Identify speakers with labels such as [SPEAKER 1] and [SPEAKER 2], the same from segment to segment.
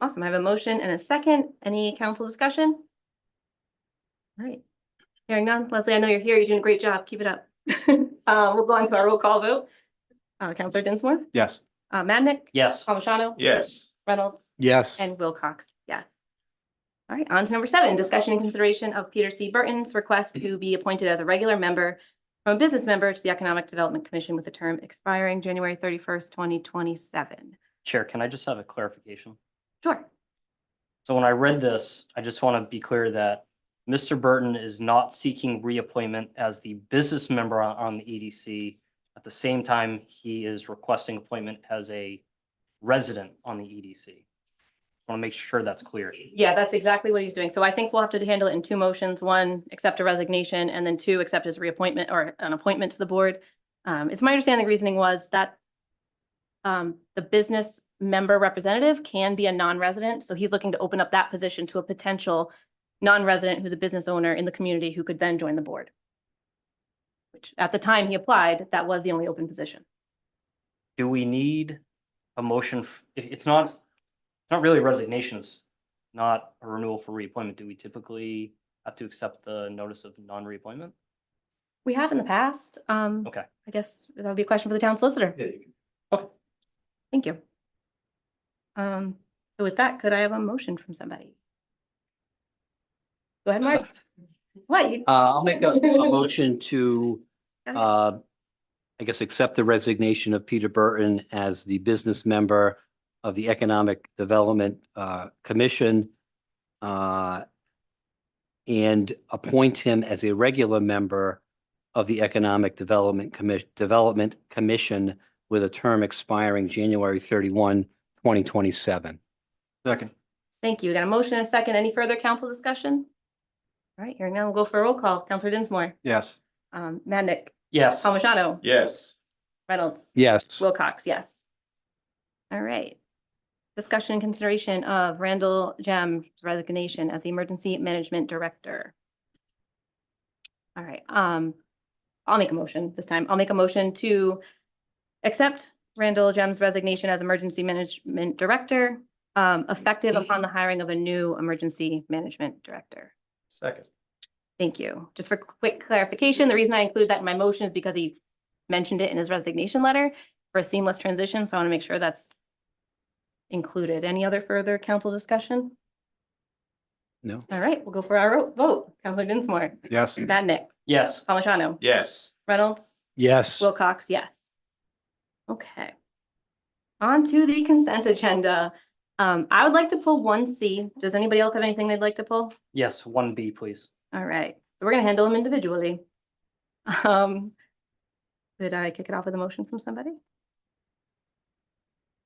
[SPEAKER 1] Awesome. I have a motion and a second. Any council discussion? All right. Hearing none. Leslie, I know you're here. You're doing a great job. Keep it up. Uh, we'll go on to our roll call vote. Uh, Counselor Dinsmore,
[SPEAKER 2] Yes.
[SPEAKER 1] uh, Madnick,
[SPEAKER 3] Yes.
[SPEAKER 1] Palmigano.
[SPEAKER 2] Yes.
[SPEAKER 1] Reynolds.
[SPEAKER 2] Yes.
[SPEAKER 1] And Wilcox, yes. All right, on to number seven, discussion and consideration of Peter C. Burton's request to be appointed as a regular member from a business member to the Economic Development Commission with a term expiring January thirty-first, twenty twenty-seven.
[SPEAKER 3] Chair, can I just have a clarification?
[SPEAKER 1] Sure.
[SPEAKER 3] So when I read this, I just want to be clear that Mr. Burton is not seeking reappointment as the business member on, on the EDC. At the same time, he is requesting appointment as a resident on the E EDC. Want to make sure that's clear.
[SPEAKER 1] Yeah, that's exactly what he's doing. So I think we'll have to handle it in two motions. One, accept a resignation, and then two, accept his reappointment or an appointment to the board. Um, it's my understanding the reasoning was that um, the business member representative can be a non-resident, so he's looking to open up that position to a potential non-resident who's a business owner in the community who could then join the board. Which, at the time he applied, that was the only open position.
[SPEAKER 3] Do we need a motion? f- it- It's not, it's not really resignations, not a renewal for reappointment. Do we typically have to accept the notice of non-reappointment?
[SPEAKER 1] We have in the past. Um,
[SPEAKER 3] Okay.
[SPEAKER 1] I guess that would be a question for the town solicitor. Thank you. Um, so with that, could I have a motion from somebody? Go ahead, Mark. What? you-
[SPEAKER 4] Uh, I'll make a, a motion to,
[SPEAKER 1] Go ahead.
[SPEAKER 4] uh, I guess, accept the resignation of Peter Burton as the business member of the Economic Development, uh, Commission. Uh, and appoint him as a regular member of the Economic Development Commission, Development Commission with a term expiring January thirty-one, twenty twenty-seven.
[SPEAKER 2] Second.
[SPEAKER 1] Thank you. We Got a motion and a second. Any further council discussion? All right, hearing none, we'll go for a roll call. Counselor Dinsmore,
[SPEAKER 2] Yes.
[SPEAKER 1] um, Madnick,
[SPEAKER 3] Yes.
[SPEAKER 1] Palmigano,
[SPEAKER 2] Yes.
[SPEAKER 1] Reynolds.
[SPEAKER 4] Yes.
[SPEAKER 1] Wilcox, yes. All right. Discussion and consideration of Randall Jam's resignation as the Emergency Management Director. All right, um, I'll make a motion this time. I'll make a motion to accept Randall Jam's resignation as Emergency Management Director, um, effective upon the hiring of a new Emergency Management Director.
[SPEAKER 2] Second.
[SPEAKER 1] Thank you. Just for quick clarification, the reason I include that in my motion is because he mentioned it in his resignation letter for a seamless transition, so I want to make sure that's included. Any other further council discussion?
[SPEAKER 4] No?
[SPEAKER 1] All right, we'll go for our ro- vote. Counselor Dinsmore,
[SPEAKER 2] Yes.
[SPEAKER 1] Madnick,
[SPEAKER 3] Yes.
[SPEAKER 1] Palmigano,
[SPEAKER 2] Yes.
[SPEAKER 1] Reynolds,
[SPEAKER 4] Yes.
[SPEAKER 1] Wilcox, yes. Okay. On to the consent agenda. Um, I would like to pull one C. Does anybody else have anything they'd like to pull?
[SPEAKER 3] Yes, one B, please.
[SPEAKER 1] All right, so we're gonna handle them individually. Um, could I kick it off with a motion from somebody?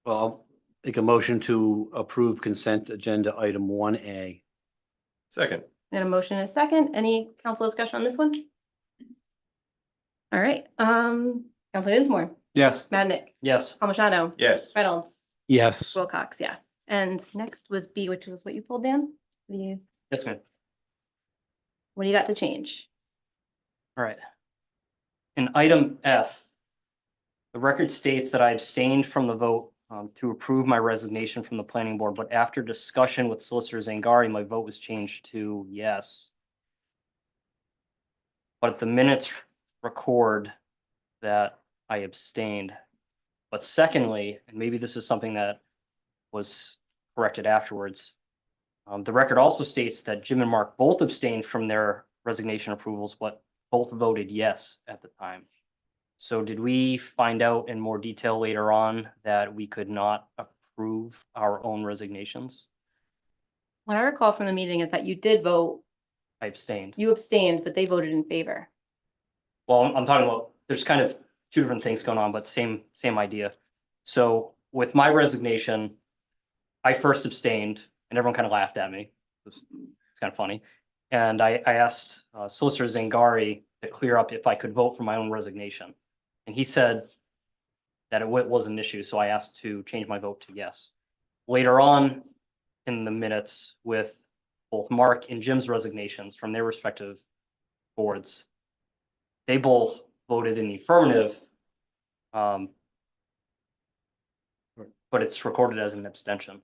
[SPEAKER 4] Well, I'll make a motion to approve consent agenda item one A.
[SPEAKER 2] Second.
[SPEAKER 1] And a motion and a second. Any council discussion on this one? All right, um, Counselor Dinsmore,
[SPEAKER 2] Yes.
[SPEAKER 1] Madnick,
[SPEAKER 3] Yes.
[SPEAKER 1] Palmigano,
[SPEAKER 2] Yes.
[SPEAKER 1] Reynolds,
[SPEAKER 4] Yes.
[SPEAKER 1] Wilcox, yes. And next was B, which was what you pulled down. The,
[SPEAKER 3] Yes, ma'am.
[SPEAKER 1] what do you got to change?
[SPEAKER 3] All right. In item F, the record states that I abstained from the vote um, to approve my resignation from the planning board, but after discussion with Solicitor Zangari, my vote was changed to yes. But the minutes record that I abstained. But secondly, and maybe this is something that was corrected afterwards. um, the record also states that Jim and Mark both abstained from their resignation approvals, but both voted yes at the time. So did we find out in more detail later on that we could not approve our own resignations?
[SPEAKER 1] What I recall from the meeting is that you did vote,
[SPEAKER 3] I abstained.
[SPEAKER 1] you abstained, but they voted in favor.
[SPEAKER 3] Well, I'm I'm talking about, there's kind of two different things going on, but same, same idea. So with my resignation, I first abstained and everyone kind of laughed at me. It was- It's kind of funny. And I, I asked uh, Solicitor Zangari to clear up if I could vote for my own resignation. And he said that it wa- was an issue, so I asked to change my vote to yes. Later on in the minutes with both Mark and Jim's resignations from their respective boards, they both voted in the affirmative. Um. But it's recorded as an abstention.